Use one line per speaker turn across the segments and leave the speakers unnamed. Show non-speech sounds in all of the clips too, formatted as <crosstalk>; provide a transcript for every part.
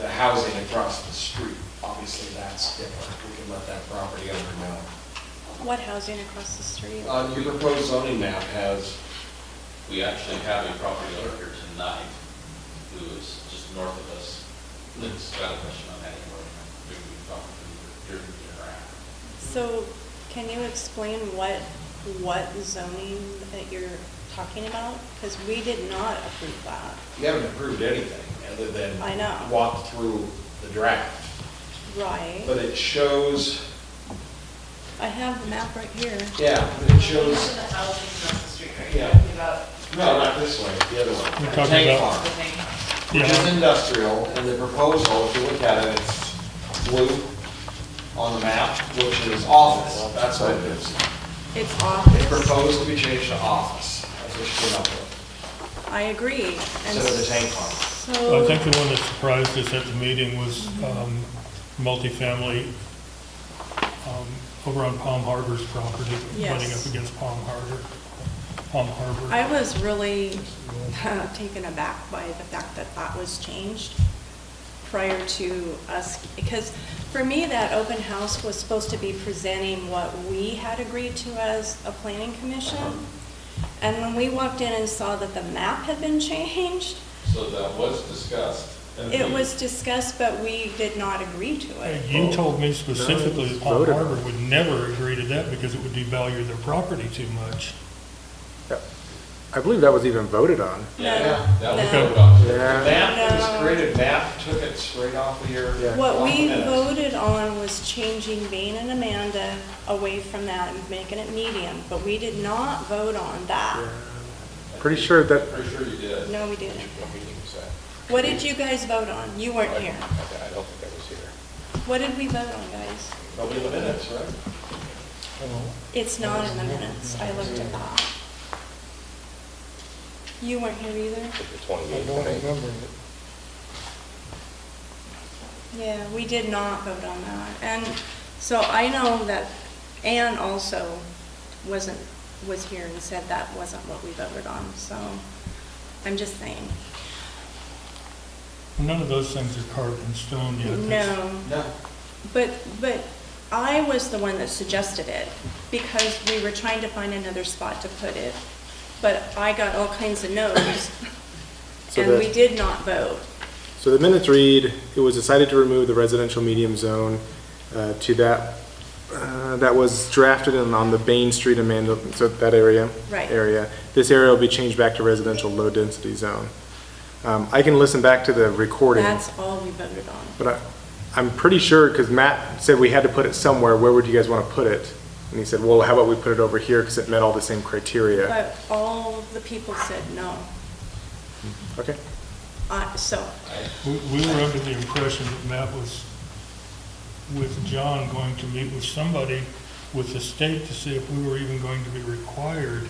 the housing across the street, obviously that's different. We can let that property owner know.
What housing across the street?
Uh, your proposed zoning map has,
We actually have a property owner here tonight who is just north of us. That's got a question on that anyway. We can talk to her during the interact.
So can you explain what, what zoning that you're talking about? Because we did not approve that.
you haven't approved anything other than.
I know.
Walk through the draft. But
Right.
it shows,
I have the map right here.
yeah, but it
Those
shows,
are the houses across the street, right?
Yeah.
Talking About
no, not this way, the other one.
You're talking
Tank
about-
farm.
the thing.
which is
Yeah,
industrial, and the proposal, if you look at it, it's blue on the map, which is office, that's what it is.
It's
It
office.
proposed to be changed to office, that's what she came up with.
I agree.
So
And
the tank farm.
I
So,
think the one that surprised us at the meeting was um, multifamily um, over on Palm Harbor's property, running
Yes.
up against Palm Harbor, Palm Harbor.
I was really <laughs> taken aback by the fact that that was changed prior to us, because for me, that open house was supposed to be presenting what we had agreed to as a planning commission. And when we walked in and saw that the map had been changed,
So that was discussed. and
it
we-
was discussed, but we did not agree to it.
You told me specifically that Palm
voted
Harbor would never agree to that because it would devalue their property too much.
I believe that was even voted on.
No,
Yeah,
That was
no.
voted on.
The
Yeah.
map, that was
No.
created map, took it straight off of your.
Yeah.
What we
off the minutes.
voted on was changing Vane and Amanda away from that and making it medium, but we did not vote on that.
Pretty sure that,
Pretty sure you did.
No, we didn't. What did you guys vote on? You weren't here.
I don't think I was here.
What did we vote on, guys?
Probably in the minutes, right?
It's not in the minutes. I looked at that. You weren't here either? Yeah, we did not vote on that. And so I know that Ann also wasn't, was here and said that wasn't what we voted on, so I'm just saying.
None of those things are carved in stone yet. That's-
No,
No.
but, but I was the one that suggested it because we were trying to find another spot to put it. But I got all kinds of no's
So
and we
that-
did not vote.
so the minutes read, it was decided to remove the residential medium zone uh, to that, uh, that was drafted and on the Bain Street Amanda, so that area.
Right.
Area. This area will be changed back to residential low-density zone. Um, I can listen back to the recording.
That's all we voted on.
But I, I'm pretty sure, because Matt said we had to put it somewhere, where would you guys want to put it? And he said, well, how about we put it over here, because it met all the same criteria.
But all the people said no.
Okay,
I- So
We we were under the impression that Matt was with John going to meet with somebody with the state to see if we were even going to be required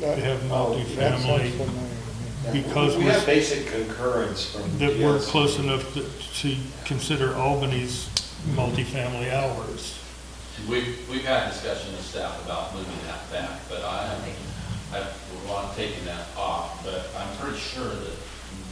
to have multifamily, because
We have
we're,
basic concurrence from.
that we're
DS.
close enough to- to consider Albany's multifamily hours.
We've, we've had discussion with staff about moving that back, but I, I would want taking that off, but I'm pretty sure that,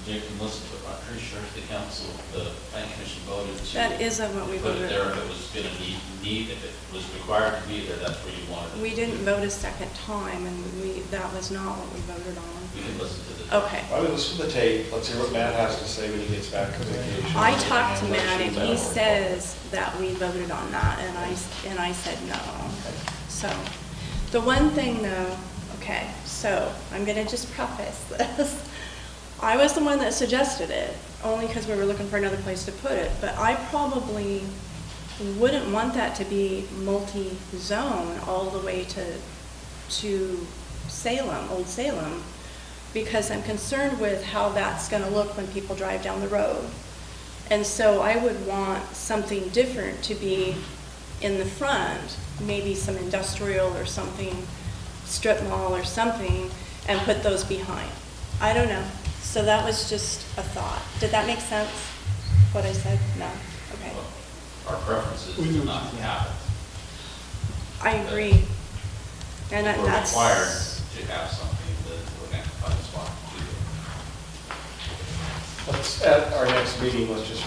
Dick can listen to it, I'm pretty sure the council, the planning commission voted to.
that isn't what we
Put it
voted
there
on.
if it was gonna need, need, if it was required to be there, that's where you wanted it.
We didn't vote a second time and we, that was not what we voted on.
We can listen to the.
Okay.
Why don't we listen to the tape, let's hear what Matt has to say when he gets back from vacation.
I talked to
And let's
Matt
see
and
what
he
Matt-
says that we voted on that and I, and I said no. So, the one thing though, okay, so I'm gonna just preface this. <laughs> I was the one that suggested it, only because we were looking for another place to put it, but I probably wouldn't want that to be multi-zone all the way to, to Salem, Old Salem, because I'm concerned with how that's gonna look when people drive down the road. And so I would want something different to be in the front, maybe some industrial or something, strip mall or something, and put those behind. I don't know. So that was just a thought. Did that make sense, what I said? No? Okay.
Our preference is to not have it.
I agree. And
If
that-
we're required
that's,
to have something, then we're gonna have to find a spot to do it.
Let's, at our next meeting, let's just